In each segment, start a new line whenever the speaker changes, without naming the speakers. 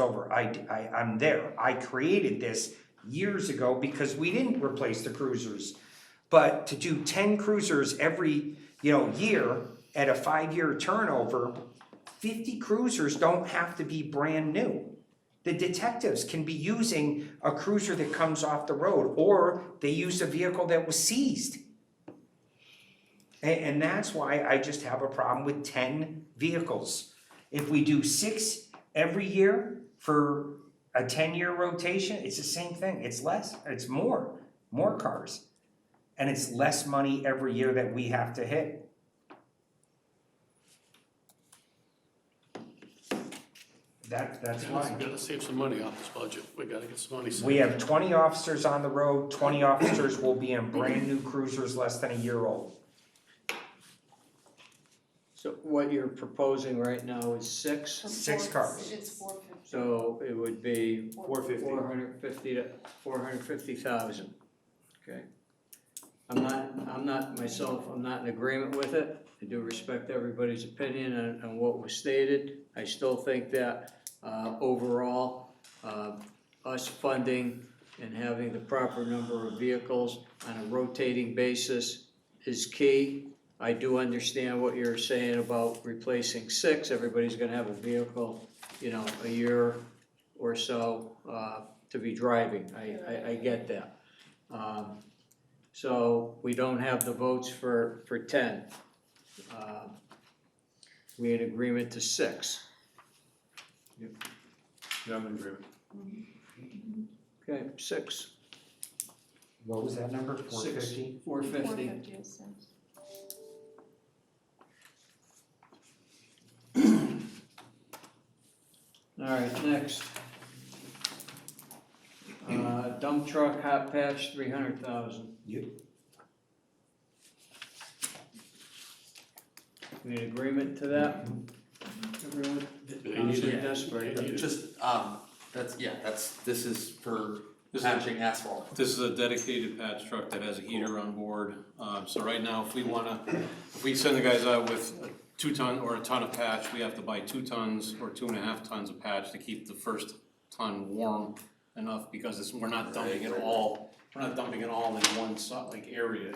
over, I, I, I'm there, I created this years ago because we didn't replace the cruisers. But to do ten cruisers every, you know, year at a five-year turnover, fifty cruisers don't have to be brand new. The detectives can be using a cruiser that comes off the road, or they use a vehicle that was seized. A- And, that's why I just have a problem with ten vehicles. If we do six every year for a ten-year rotation, it's the same thing, it's less, it's more, more cars. And it's less money every year that we have to hit. That, that's why.
We gotta save some money off this budget, we gotta get some money
We
saved.
have twenty officers on the road, twenty officers will be in brand new cruisers less than a year old.
So what you're proposing right now is six,
Six
Four-
cars.
It's four fifty.
so it would be
Four fifty.
four hundred fifty to, four hundred fifty thousand, okay? I'm not, I'm not myself, I'm not in agreement with it, I do respect everybody's opinion on, on what was stated. I still think that, uh, overall, uh, us funding and having the proper number of vehicles on a rotating basis is key. I do understand what you're saying about replacing six, everybody's gonna have a vehicle, you know, a year or so, uh, to be driving, I, I, I get that. Um, so, we don't have the votes for, for ten. Uh, We in agreement to six,
Yeah, I'm in agreement.
okay, six,
What was that number, four
Six.
fifty?
four
Four
fifty.
fifty is six.
All right, next. Uh, dump truck hot patch, three hundred thousand.
Yep.
We in agreement to that? Everyone?
You need
Councilor
it.
Desperate.
You need it.
Just, um, that's, yeah, that's, this is for
This is,
patching asphalt.
this is a dedicated patch truck that has a heater on board, um, so right now, if we wanna, if we send the guys out with a two ton or a ton of patch, we have to buy two tons or two and a half tons of patch to keep the first ton warm enough, because it's, we're not dumping it all, we're not dumping it all in one so, like area.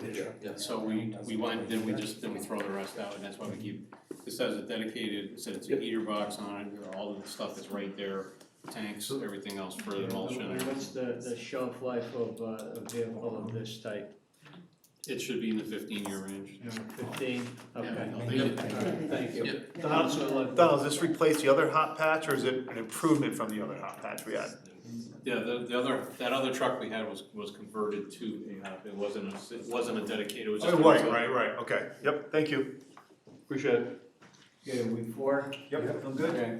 So we, we went, then we just, then we throw the rest out, and that's why we keep, this has a dedicated, it said it's a heater box on it, and all the stuff is right there, tanks, everything else for the emulsion.
What's the, the shelf life of uh, a vehicle of this type?
It should be in the fifteen year range.
Fifteen, okay.
Yeah, they-
Thank you.
Yep.
Councilor
Donald,
Lo-
does this replace the other hot patch or is it an improvement from the other hot patch we had?
Yeah, the, the other, that other truck we had was, was converted to a, uh, it wasn't a, it wasn't a dedicated, it was just. a-
Oh, Right, right, right, okay, yep, thank you. Appreciate it.
Okay, we four?
Yep, I'm good.
Okay.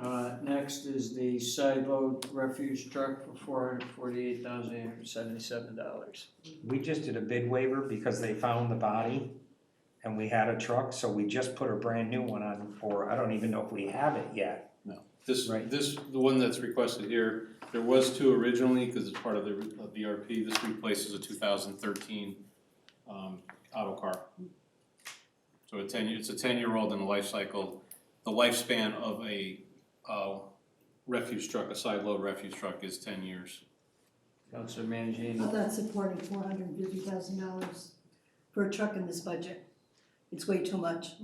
Uh, next is the side load refuse truck for four hundred forty-eight thousand eight hundred seventy-seven dollars.
We just did a bid waiver because they found the body and we had a truck, so we just put a brand new one on for, I don't even know if we have it yet.
This,
Right.
this, the one that's requested here, there was two originally, cause it's part of the, of the RP, this replaces a two thousand thirteen, um, auto car. So a ten, it's a ten year old in the life cycle, the lifespan of a, uh, refuse truck, a side load refuse truck is ten years.
Councilor Mangini.
I'm not supporting four hundred and fifty thousand dollars for a truck in this budget. It's way too much,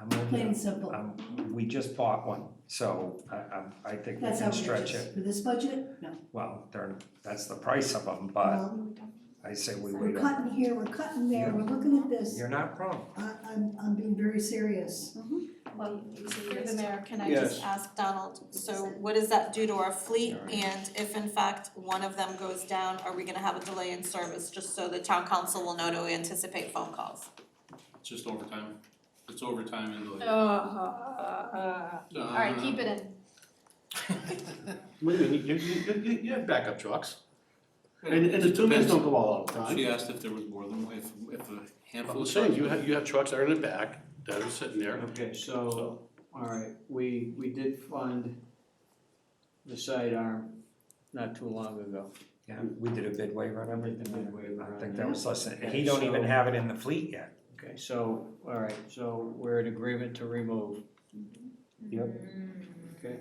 I'm with
plain and
you.
simple.
Um, we just bought one, so I, I, I think we
That's
can stretch
outrageous.
it.
For this budget, no.
Well, they're, that's the price of them, but
Well,
I say we
We're
wait. a-
cutting here, we're cutting there, we're looking at this.
You're not wrong.
I, I'm, I'm being very serious.
Well, through the mayor, can I
Yes.
just ask Donald, so what does that do to our fleet? And if in fact one of them goes down, are we gonna have a delay in service, just so the town council will know to anticipate phone calls?
It's just overtime, it's overtime and delay.
Uh, Uh-huh, all right, keep it in.
What do you mean, you, you, you, you have backup trucks?
And- and the two men don't
go all the
She asked if there was more than, if, if a handful
I'm
of
saying
trucks.
you
You have, you have trucks that are in the back, that are sitting there,
Okay, so, all right, we, we did fund the sidearm not too long ago.
Yeah, we did a bid waiver on
We did the
everything.
bid waiver
I
on
think
it.
that was less than,
Yeah,
he don't even
so-
have it in the fleet yet.
Okay, so, all right, so we're in agreement to remove.
Yep.
Okay.